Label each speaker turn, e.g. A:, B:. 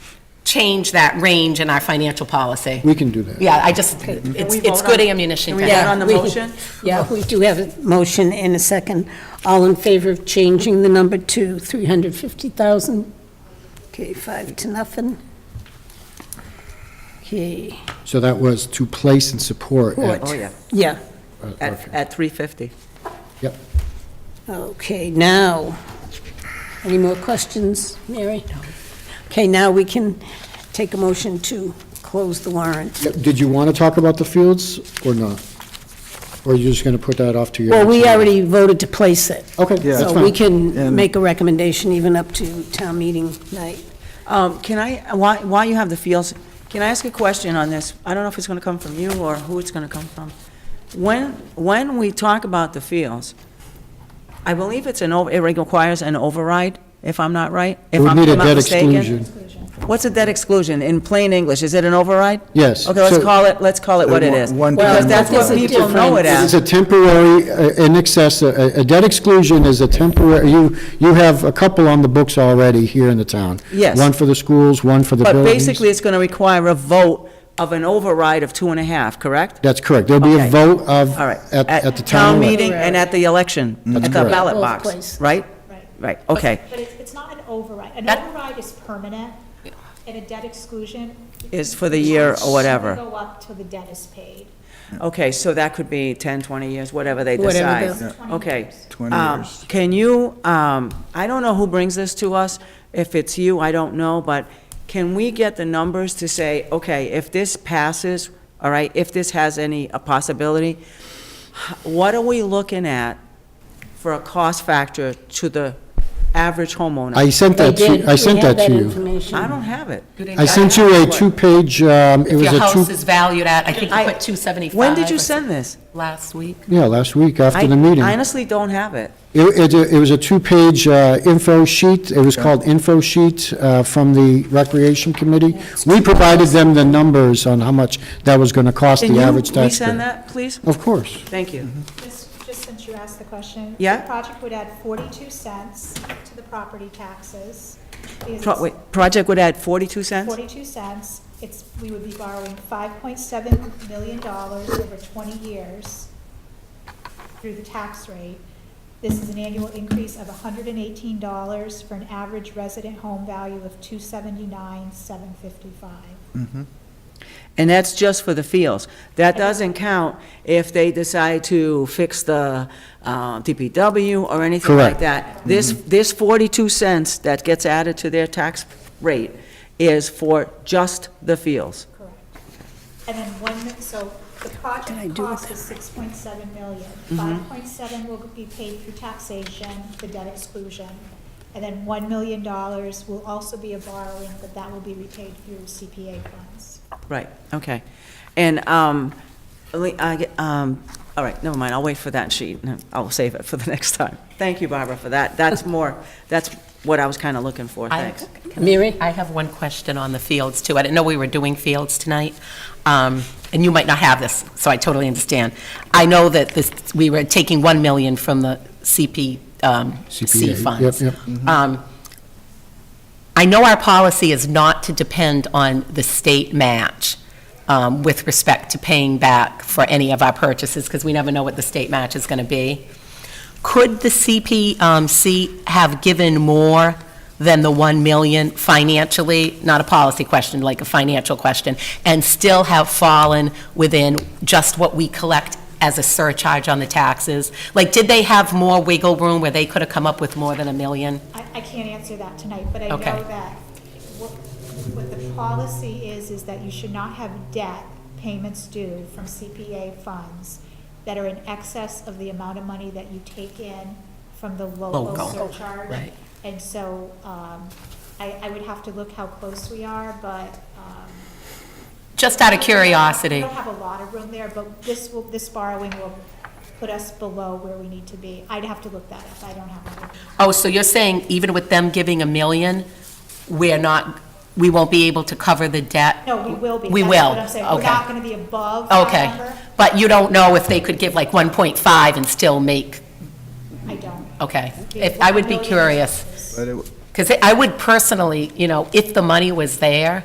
A: change that range in our financial policy.
B: We can do that.
A: Yeah, I just, it's,
C: we
A: it's
C: vote
A: good
C: on-
A: ammunition.
C: Can we
A: to
C: vote
A: have.
C: on the
D: Yeah, we-
C: motion?
D: Yeah, we do have a motion and a second. All in favor of changing the number to 350,000? Okay, five to nothing. Okay,
B: So that was to place and support at.
C: Oh, yeah,
D: yeah,
B: uh,
C: at,
B: okay.
C: at 350.
B: Yep.
D: okay, now, any more questions, Mary? Okay, now we can take a motion to close the warrant.
B: Yep. Did you want to talk about the fields or not? Or are you just going to put that off to your?
D: Well,
B: next
D: we
B: meeting?
D: already voted to place it.
B: Okay, that's
D: So we
B: fine.
D: can
E: And-
D: make a recommendation even up to town meeting night.
C: Um, Can I, while while you have the fields, can I ask a question on this? I don't know if it's going to come from you or who it's going to come from. When, when we talk about the fields, I believe it's an, over- it requires an override, if I'm not right?
B: It
C: if
B: would
C: I'm-
B: need a
C: I'm not
B: debt
C: mistaken.
B: exclusion.
C: What's a debt exclusion? In plain English, is it an override?
B: Yes,
C: Okay, let's
B: so-
C: call it, let's call it what it is.
E: One- one
C: Because
E: time
C: that's what
D: override.
C: people know it
B: It's
C: as.
B: a temporary, uh, in excess, a a debt exclusion is a temporary, you, you have a couple on the books already here in the town.
C: Yes.
B: One for the schools, one for the
C: But
B: buildings.
C: basically, it's going to require a vote of an override of two and a half, correct?
B: That's correct. There'll be a
C: Okay.
B: vote of,
C: All right.
B: at, at the town. elec-
C: meeting and at the election, at the
B: correct.
C: ballot
D: Both
C: box,
D: places.
C: right?
F: Right.
C: Right, okay.
F: But it's, it's not an override. An
A: That-
F: override is permanent, and a debt exclusion.
C: Is for the year or whatever.
F: It's gonna Go up till the debt is paid.
C: Okay, so that could be 10, 20 years, whatever they
D: Whatever
C: decide.
D: the-
F: Yeah.
C: Okay.
E: 20
C: Um,
E: years.
C: Can you, um, I don't know who brings this to us. If it's you, I don't know, but can we get the numbers to say, okay, if this passes, all right, if this has any, a possibility, h- what are we looking at for a cost factor to the average homeowner?
B: I sent that
D: They did.
B: to, I sent
D: We have
B: that to you.
D: information.
C: I don't have it.
B: I sent you a two-page, um, it
A: If
B: was
A: your
B: a
A: house
B: two,
A: is valued at, I think you
C: I-
A: put 275.
C: When did you
A: or
C: send this?
A: something Last week.
B: yeah, last week after
C: I
B: the meeting.
C: I honestly don't have it.
B: It, it, it was a two-page uh, info sheet, it was called info sheet uh, from the Recreation Committee. We provided them the numbers on how much that was gonna cost
C: Can
B: the
C: you
B: average taxpayer.
C: resend that, please?
B: Of course.
C: Thank you.
F: Just, just since you asked the question.
C: Yeah.
F: The project would add 42 cents to the property taxes. because
C: Pro-
F: it's
C: wait, Project would add 42 cents?
F: 42 cents. It's, we would be borrowing $5.7 million dollars over 20 years through the tax rate. This is an annual increase of $118 for an average resident home value of 279,755.
C: And that's just for the fields. That doesn't count if they decide to fix the uh, DPW or anything like
B: Correct. Mm-hmm.
C: that. This, this 42 cents that gets added to their tax rate is for just the fields.
F: Correct. And then one, mi- so the
D: What did I
F: project
D: do Mm-hmm. with
F: cost is six point seven million. Five point seven will be paid through taxation, the debt exclusion. And then one million dollars will also be a borrowing, but that will be repaid through CPA funds.
C: Right, okay. And, um, le- I get- um, all right, never mind, I'll wait for that sheet. No, I'll save it for the next time. Thank you, Barbara, for that. That's more, that's what I was kind of looking for,
A: I-
C: thanks.
D: Mary?
A: I have one question on the fields, too. I didn't know we were doing fields tonight, um, and you might not have this, so I totally understand. I know that this, we were taking 1 million from the CP, um, C
B: CPA,
A: funds.
B: yep,
A: Um, I know our policy is not to depend on the state match um, with respect to paying back for any of our purchases, because we never know what the state match is going to be. Could the CPC have given more than the 1 million financially, not a policy question, like a financial question, and still have fallen within just what we collect as a surcharge on the taxes? Like, did they have more wiggle room where they could have come up with more than a million?
F: I, I can't answer that tonight, but I know
A: Okay.
F: that what, what the policy is, is that you should not have debt payments due from CPA funds that are in excess of the amount of money that you take in from the local
A: Local,
F: surcharge.
A: right.
F: And so, um, I, I would have to look how close we are, but, um.
A: Just out of
F: We
A: curiosity.
F: don't have a lot of room there, but this will, this borrowing will put us below where we need to be. I'd have to look that up. I don't have a.
A: Oh, so you're saying even with them giving a million, we're not, we won't be able to cover the debt?
F: No, we will be.
A: We
F: That's
A: will,
F: what I'm saying. We're
A: okay.
F: not going to be above that
A: Okay.
F: number.
A: But you don't know if they could give like 1.5 and still make,
F: I don't.
A: okay. If, I would be
F: One million
A: curious,
F: is-
E: But it-
A: because I would personally, you know, if the money was there,